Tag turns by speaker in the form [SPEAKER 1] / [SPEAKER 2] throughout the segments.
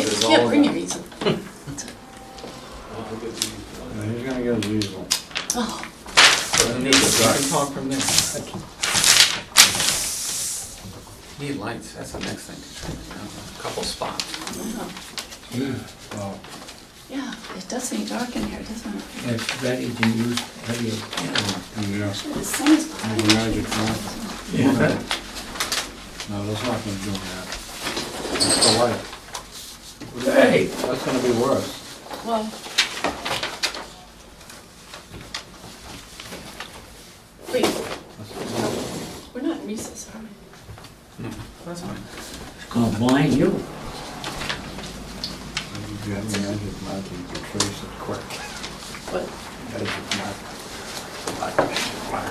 [SPEAKER 1] can't bring your easel.
[SPEAKER 2] Yeah, He's gonna get his easel.
[SPEAKER 1] Oh,
[SPEAKER 3] Need, you can talk from there. Need lights, that's the next thing to trim, you know, a couple spots.
[SPEAKER 1] yeah.
[SPEAKER 2] Well,
[SPEAKER 1] Yeah, it does get dark in here, doesn't it?
[SPEAKER 4] It's ready to use heavy
[SPEAKER 2] and yes,
[SPEAKER 1] The sun is behind
[SPEAKER 2] the magic lamp.
[SPEAKER 4] Yeah.
[SPEAKER 2] No, that's not gonna do that. That's the light.
[SPEAKER 4] Hey,
[SPEAKER 2] That's gonna be worse.
[SPEAKER 1] Well, wait,
[SPEAKER 2] That's-
[SPEAKER 1] we're not in recess, are we?
[SPEAKER 3] That's fine.
[SPEAKER 4] it's gonna blind Oh, you.
[SPEAKER 2] If you have the magic mark, you can trace it quick.
[SPEAKER 1] What,
[SPEAKER 2] Magic mark.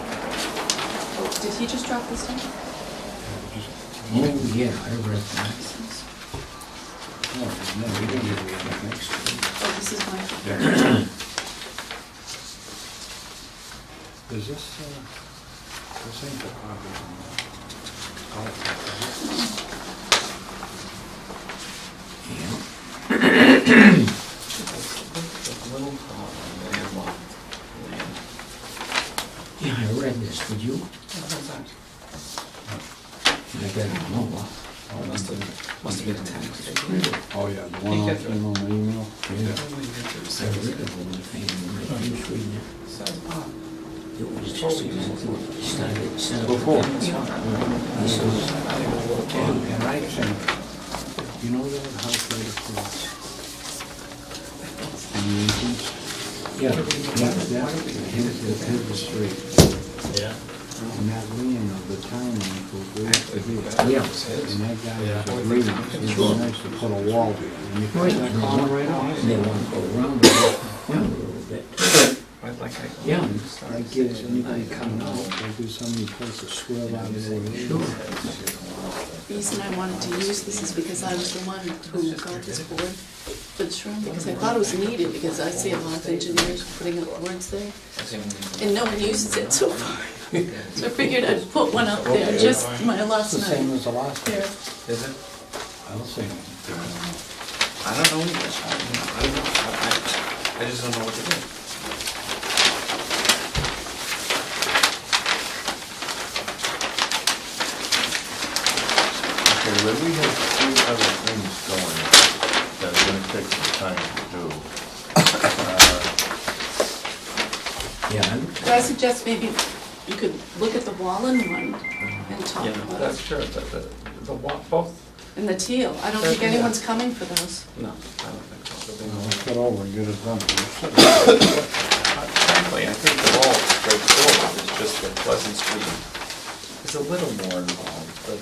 [SPEAKER 1] oh, did he just drop this down?
[SPEAKER 4] Oh, yeah, I read that.
[SPEAKER 1] Oh,
[SPEAKER 2] No, no, you didn't give me any next.
[SPEAKER 1] oh, this is my,
[SPEAKER 2] Yeah. Is this, uh, this ain't the copy. Oh,
[SPEAKER 4] Yeah.
[SPEAKER 3] Just a little problem, and one.
[SPEAKER 4] Yeah, I read this, did you? I got it, no, uh,
[SPEAKER 2] oh,
[SPEAKER 3] Must have, must have been a tax.
[SPEAKER 2] Oh, yeah, the one
[SPEAKER 3] Can't
[SPEAKER 2] on,
[SPEAKER 3] get through.
[SPEAKER 2] on the email?
[SPEAKER 4] Yeah.
[SPEAKER 3] Only get through the
[SPEAKER 4] I read
[SPEAKER 3] second
[SPEAKER 4] it
[SPEAKER 3] step.
[SPEAKER 4] when I came, I was reading
[SPEAKER 3] Says, ah,
[SPEAKER 4] it. It was just, it started, it started.
[SPEAKER 3] you
[SPEAKER 2] Before.
[SPEAKER 3] know, I
[SPEAKER 4] This was-
[SPEAKER 3] will work it out.
[SPEAKER 2] And I think, you know that house right across? And the entrance?
[SPEAKER 4] Yeah,
[SPEAKER 2] Yeah, that, his, his his was straight. Yeah. And that lien of the town goes right to here. And
[SPEAKER 4] yeah.
[SPEAKER 2] that guy was agreeing, it was nice to put a wall there. And you put that corner right on.
[SPEAKER 4] They want to go around it, yeah, a little bit.
[SPEAKER 3] I'd like I-
[SPEAKER 4] Yeah.
[SPEAKER 2] That gives anybody coming out, they do somebody supposed to swirl out of there.
[SPEAKER 4] Sure.
[SPEAKER 1] reason I wanted to use this is because I was the one who got this board for the shrine, because I thought it was needed, because I see a lot of engineers putting up boards there, and no one uses it so far. So I figured I'd put one up there, just my
[SPEAKER 2] It's
[SPEAKER 1] last
[SPEAKER 2] the same
[SPEAKER 1] night.
[SPEAKER 2] as the last one.
[SPEAKER 1] There,
[SPEAKER 3] Is it?
[SPEAKER 2] I don't think.
[SPEAKER 3] I don't know either. I don't know. I don't know. I- I, I just don't know what to do.
[SPEAKER 5] Okay, but we have two other things going that are gonna take some time to do.
[SPEAKER 4] Yeah, I'm-
[SPEAKER 1] But I suggest maybe you could look at the Wallen one and talk
[SPEAKER 3] Yeah, no,
[SPEAKER 1] about
[SPEAKER 3] that's
[SPEAKER 1] it,
[SPEAKER 3] true, but the, the wa, both,
[SPEAKER 1] and the teal, I don't think
[SPEAKER 3] Yeah.
[SPEAKER 1] anyone's coming for those.
[SPEAKER 3] no, I don't think so. But
[SPEAKER 2] You
[SPEAKER 3] they-
[SPEAKER 2] know, Let's get over and get it done.
[SPEAKER 3] Frankly, I think they're all straightforward, it's just that Pleasant Street is a little more involved, but,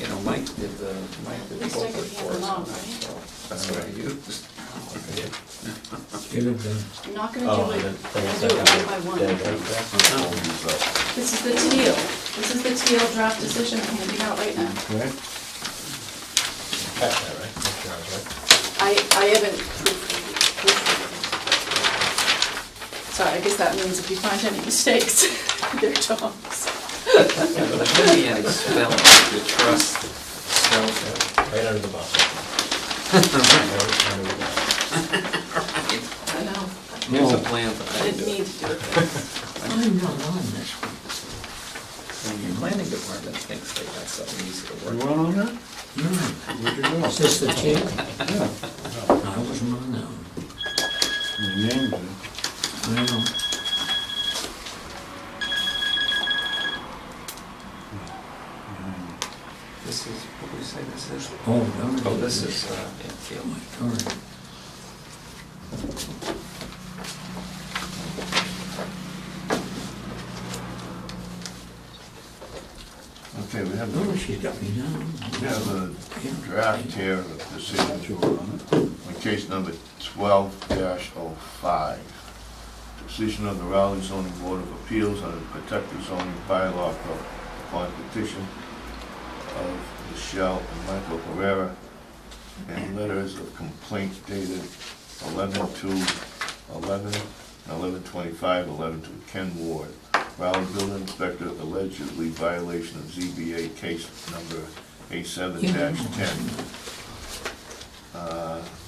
[SPEAKER 3] you know, Mike did the, Mike did
[SPEAKER 1] At least
[SPEAKER 3] the
[SPEAKER 1] I
[SPEAKER 3] book
[SPEAKER 1] can handle
[SPEAKER 3] reports on that,
[SPEAKER 1] mine, right?
[SPEAKER 3] so. That's what I used.
[SPEAKER 4] give it the,
[SPEAKER 1] I'm not gonna
[SPEAKER 3] Oh,
[SPEAKER 1] do it, I'll do it one by one. This is the teal, this is the teal draft decision I'm handing out right now.
[SPEAKER 2] Okay?
[SPEAKER 1] I, I haven't proofread it. proofread it. Sorry, I guess that means if you find any mistakes, they're Tom's.
[SPEAKER 3] Yeah, but in the end, spell, the trust, spell,
[SPEAKER 6] Right under the bus.
[SPEAKER 1] I know,
[SPEAKER 3] here's a plan, but
[SPEAKER 1] I
[SPEAKER 3] I didn't
[SPEAKER 1] didn't
[SPEAKER 3] do it.
[SPEAKER 1] need to do it. but-
[SPEAKER 4] I'm not on this one.
[SPEAKER 3] And the planning department thinks they got something easy to
[SPEAKER 2] You
[SPEAKER 3] work.
[SPEAKER 2] went on that?
[SPEAKER 4] No,
[SPEAKER 2] Where'd Mm-hmm. you go?
[SPEAKER 4] is this the teal?
[SPEAKER 2] Yeah.
[SPEAKER 4] I wasn't on that one.
[SPEAKER 2] You named it.
[SPEAKER 4] I know.
[SPEAKER 3] This is, what do we say this is?
[SPEAKER 4] Oh, no.
[SPEAKER 3] Oh, this is, uh, yeah, field.
[SPEAKER 4] My God.
[SPEAKER 5] Okay, we have,
[SPEAKER 4] Oh,
[SPEAKER 5] the-
[SPEAKER 4] she got me down.
[SPEAKER 5] we have a draft here of
[SPEAKER 2] Thought
[SPEAKER 5] decision
[SPEAKER 2] you were on it.
[SPEAKER 5] on case number twelve 5 oh Decision of the Raleigh zoning board of appeals on the protective zoning bylaw pro- upon petition of Michelle and Michael Herrera and letters of complaint dated 11 to 11, 11 25, 11 to Ken Ward. Raleigh building inspector allegedly violation of ZBA case number A seven ten